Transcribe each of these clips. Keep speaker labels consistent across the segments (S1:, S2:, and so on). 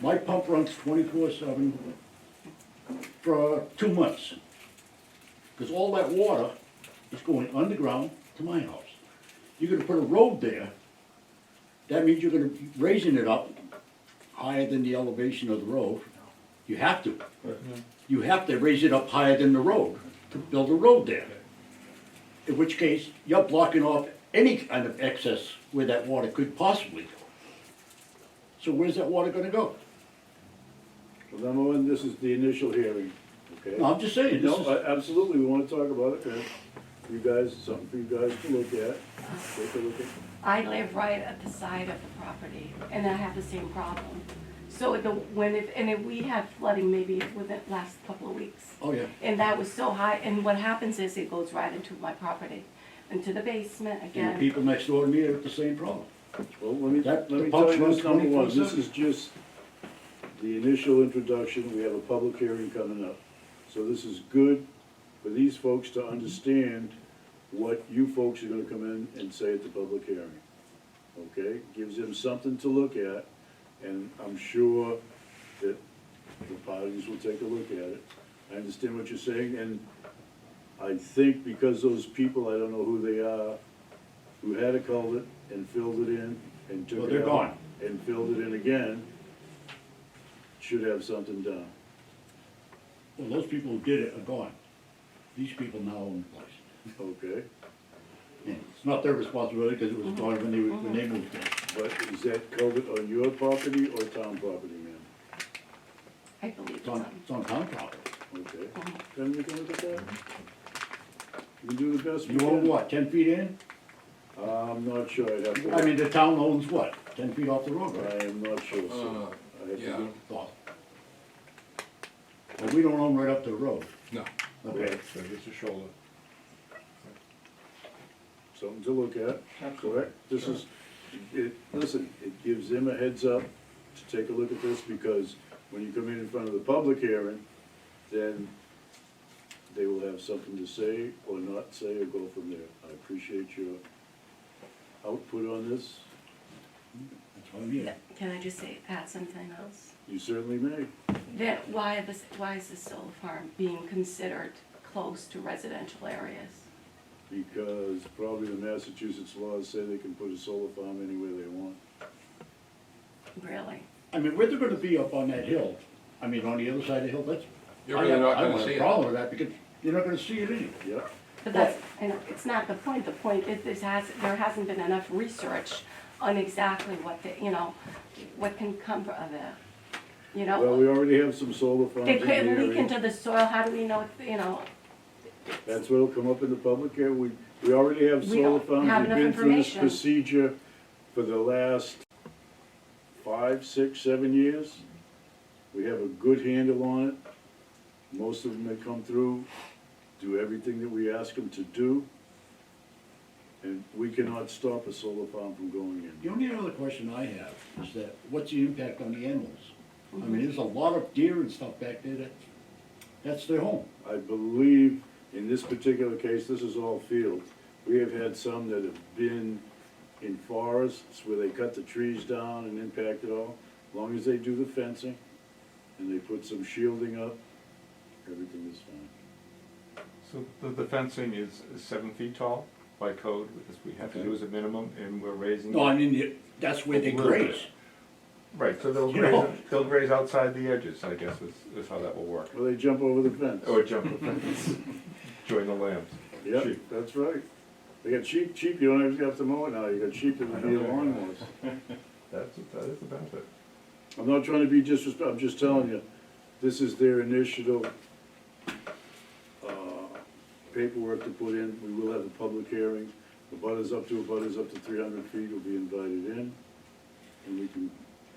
S1: My pump runs twenty-four seven for two months. Cause all that water is going underground to my house. You're gonna put a road there, that means you're gonna be raising it up higher than the elevation of the road. You have to. You have to raise it up higher than the road to build a road there. In which case, you're blocking off any kind of excess where that water could possibly go. So where's that water gonna go?
S2: Well, number one, this is the initial hearing, okay?
S1: No, I'm just saying, uh, this
S2: No,
S1: is-
S2: I- absolutely, we wanna talk about it, and you guys, something for you guys to look at, take a look at.
S3: I live right at the side of the property, and I have the same problem. So the, when it, and if we had flooding maybe within the last couple of weeks.
S1: oh yeah,
S3: And that was so high, and what happens is it goes right into my property, into the basement
S1: and the
S3: again.
S1: people next door to me have the same problem.
S2: Well, let me,
S1: That-
S2: let
S1: the
S2: me
S1: box
S2: tell you
S1: runs
S2: this, number one, this
S1: 24/7.
S2: is just the initial introduction, we have a public hearing coming up. So this is good for these folks to understand what you folks are gonna come in and say at the public hearing. Okay, gives them something to look at, and I'm sure that the parties will take a look at it. I understand what you're saying, and I think because those people, I don't know who they are, who had a culvert and filled it in and took it
S1: Well,
S2: out.
S1: they're gone.
S2: And filled it in again, should have something done.
S1: Well, those people who did it are gone. These people now own the place.
S2: Okay,
S1: And it's not their responsibility because it was gone when they, were- when they moved in.
S2: but is that culvert on your property or town property, ma'am?
S3: I believe
S1: It's
S3: it's
S1: on,
S3: on.
S1: it's on town property.
S2: Okay,
S1: Uh-huh.
S3: Mhm.
S2: then we can look at that. You can do the best we
S1: You
S2: can.
S1: own what, ten feet in?
S2: I'm not sure, I'd have to.
S1: I mean, the town owns what, ten feet off the road, right?
S2: I am not sure, sir.
S4: Uh,
S2: I have to
S4: yeah.
S2: go-
S1: Well, But we don't own right up to the road.
S4: No.
S1: Okay,
S5: So it's a shoulder.
S2: Something to look at, correct? This is, it, listen, it gives them a heads up to take a look at this, because when you come in in front of the public hearing, then they will have something to say or not say or go from there. I appreciate your output on this.
S1: that's what I mean.
S3: Can I just say, add something else?
S2: You certainly may.
S3: Then why this, why is this solar farm being considered close to residential areas?
S2: Because probably the Massachusetts laws say they can put a solar farm anywhere they want.
S3: Really?
S1: I mean, where they're gonna be up on that hill, I mean, on the other side of the hill, that's.
S4: You're
S1: I
S4: really
S1: have-
S4: not
S1: I
S4: gonna
S1: don't
S4: see
S1: have a
S4: it.
S1: problem with that because you're not gonna see it anyway.
S2: Yep,
S3: But that's, I know, it's not the point, the point is this has, there hasn't been enough research on exactly what the, you know, what can come of it, you
S2: well, we
S3: know?
S2: already have some solar farms
S3: They
S2: in the
S3: could
S2: area.
S3: leak into the soil, how do we know, you know,
S2: That's what'll come up in the public here, we, we already have
S3: We
S2: solar
S3: don't have
S2: farms, we've
S3: enough
S2: been through this
S3: information.
S2: procedure for the last five, six, seven years. We have a good handle on it, most of them that come through do everything that we ask them to do. And we cannot stop a solar farm from going in.
S1: The only other question I have is that, what's the impact on the animals? I mean, there's a lot of deer and stuff back there that, that's their home.
S2: I believe in this particular case, this is all field. We have had some that have been in forests where they cut the trees down and impact it all. As long as they do the fencing and they put some shielding up, everything is fine.
S5: So the, the fencing is is seven feet tall by code, because we have to do as a minimum, and we're raising.
S1: No, I mean, you- that's where they graze.
S5: Right, so they'll
S1: You
S5: graze,
S1: know.
S5: they'll graze outside the edges, I guess, is, is how that will work.
S2: Well, they jump over the fence.
S5: Or jump the fence, join the lambs.
S2: Yep,
S5: sheep.
S2: that's right. They got sheep, sheep, you don't even have to mow it now, you got sheep that would be lawnmowers.
S5: That's, that is the benefit.
S2: I'm not trying to be disrespectful, I'm just telling you, this is their initial uh, paperwork to put in. We will have a public hearing. The butters up to, butters up to three hundred feet will be invited in, and we can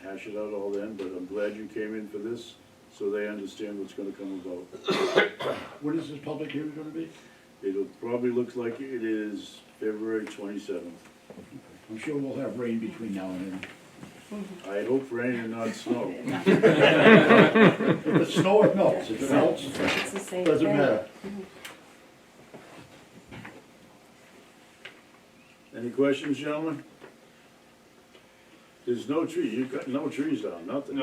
S2: hash it out all then, but I'm glad you came in for this, so they understand what's gonna come about.
S1: When is this public hearing gonna be?
S2: It'll probably look like it is February twenty-seventh.
S1: I'm sure we'll have rain between now and then.
S2: I hope rain and not snow.
S1: If it snows, it melts. If it melts,
S3: it's the same thing?
S1: doesn't matter.
S2: Any questions, gentlemen? There's no tree, you cut no trees down, nothing.